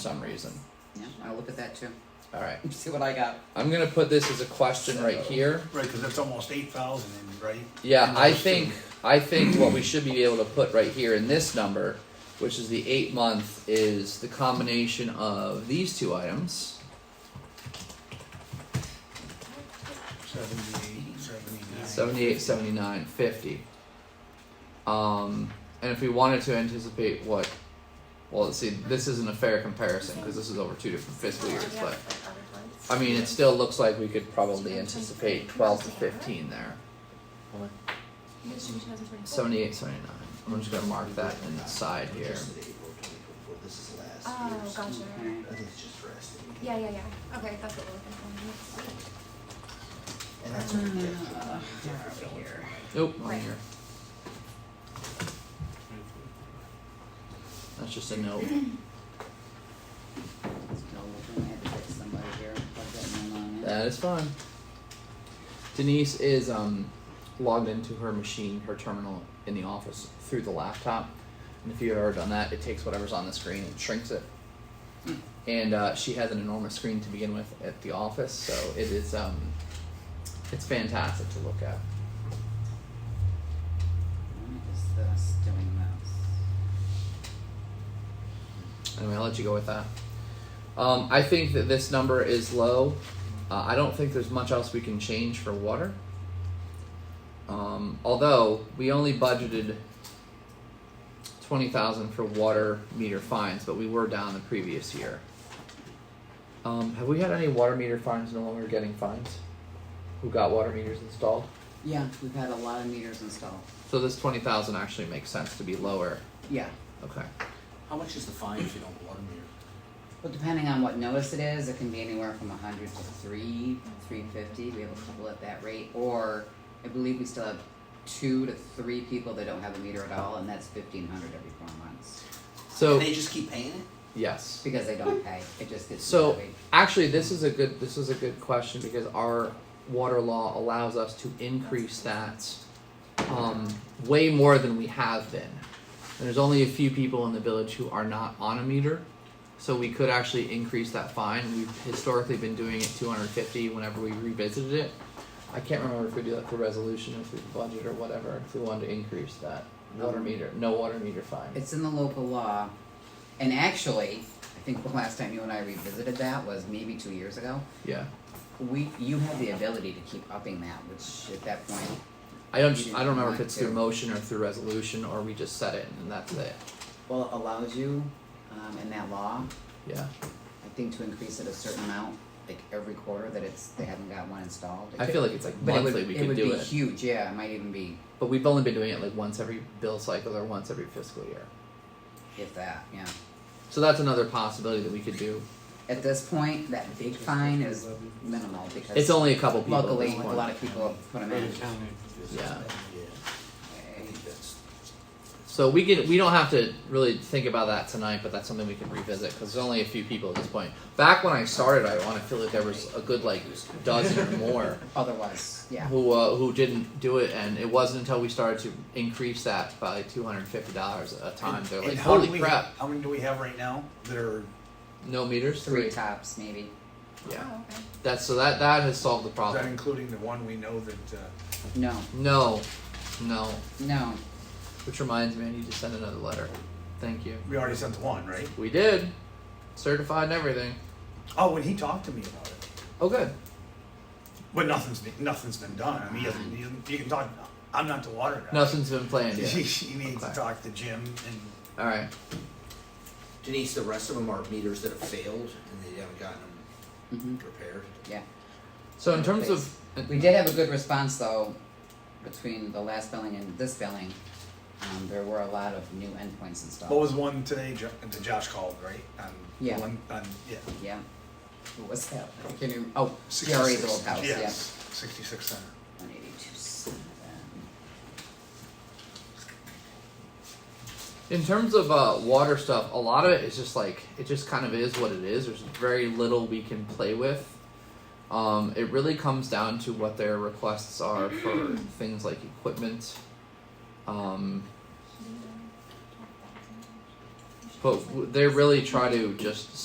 some reason. Yeah, I'll look at that too. All right. See what I got. I'm gonna put this as a question right here. Right, because that's almost eight thousand, right? Yeah, And I those think, I think what we should be able to put right here in this number, which is the eight month, is the combination of these two items. two, Seventy-eight, seventy-nine. 78, 79, 50. Um, and if we wanted to anticipate what, well, let's see, this isn't a fair comparison because this is over two different fiscal years, but I mean, it still looks like we could probably anticipate 12 to 15 there. 78, 79. I'm just gonna mark that inside here. Oh, gotcha. Alright. I think it's just for estimate. Yeah, yeah, yeah. Okay, that's what we're looking And that's what it gets. Uh, where are we here? Nope, wrong Right. here. That's just a note. No, we're gonna have to get somebody here and plug that one on in. That is fine. Denise is um, logged into her machine, her terminal in the office through the laptop. And if you've ever done that, it takes whatever's on the screen and shrinks it. And uh, she has an enormous screen to begin with at the office, so it is um, it's fantastic to look at. What is this doing this? Anyway, I'll let you go with that. Um, I think that this number is low. Uh, I don't think there's much else we can change for water. Um, although we only budgeted twenty thousand for water meter fines, but we were down the previous year. Um, have we had any water meter fines no longer getting fines? Who got water meters installed? Yeah, we've had a lot of meters installed. So this twenty thousand actually makes sense to be lower. Yeah, Okay. How much is the fine if you don't water meter? well, depending on what notice it is, it can be anywhere from a hundred to three, three fifty. We have a couple at that rate, or I believe we still have two to three people that don't have a meter at all, and that's fifteen hundred every four months So They just keep paying it? yes. because they don't pay. It just gets So levied. actually, this is a good this is a good question because our water law allows us to increase that um, way more than we have been. And there's only a few people in the village who are not on a meter, so we could actually increase that fine. We've historically been doing it 250 whenever we revisited it. I can't remember if we do that for resolution, if we budget or whatever. If we wanted to increase that water meter, no water meter fine. It's in the local law, and actually, I think the last time you and I revisited that was maybe two years ago. yeah. We, you have the ability to keep upping that, which at that point, I don't. You I don't remember if want it's through to. motion or through resolution or we just set it and that's it. well, allows you, um, in that law, Yeah. I think to increase it a certain amount, like every quarter that it's, they haven't got one installed. It I could- feel like it's like but it would- monthly we could do would be it, huge, yeah, it might even be, but we've only been doing it like once every bill cycle or once every fiscal year. if that, yeah. So that's another possibility that we could do. At this point, that big fine is minimal because. It's only a couple people. at Luckily, this a point. lot of people have put them in. Yeah. Yeah, I Okay. think that's, So we can we don't have to really think about that tonight, but that's something we can revisit because there's only a few people at this point. Back when I started, I want to feel like there was a good like dozen or more. Otherwise, yeah. who uh, who didn't do it, and it wasn't until we started to increase that by like two hundred and fifty dollars a time. And- They're and like, how many "Holy we- crap! How many do we have right now that are, No meters, Three tops, maybe. for. Yeah, Oh, okay. that's so that that has solved the is that problem. including the one we know that, uh, No, No, no. no. Which reminds me, I need to send another letter. Thank you. we already sent one, right? We did, certified and everything. Oh, when he talked to me about it, Oh, good. but nothing's been, nothing's been done, I mean, he hasn't, he hasn't, you can talk, I'm not the water guy. Nothing's been planned He, yet. he needs to Okay. talk to Jim and, All right. Denise, the rest of them are meters that have failed and they haven't gotten them hmm repaired. yeah. So in terms of We did have a good response though, between the last billing and this billing. Um, there were a lot of new endpoints installed. Oh. what was one today, Jo- that Josh called, right? On- Yeah. On, on, yeah. Yeah. What was that? I can't even, oh, Jerry's 66 old house, yeah. Yes, sixty-six center. One eighty-two seven. In terms of uh, water stuff, a lot of it is just like it just kind of is what it is. There's very little we can play with. Um, it really comes down to what their requests are for things like equipment. Um, but w- they really try to just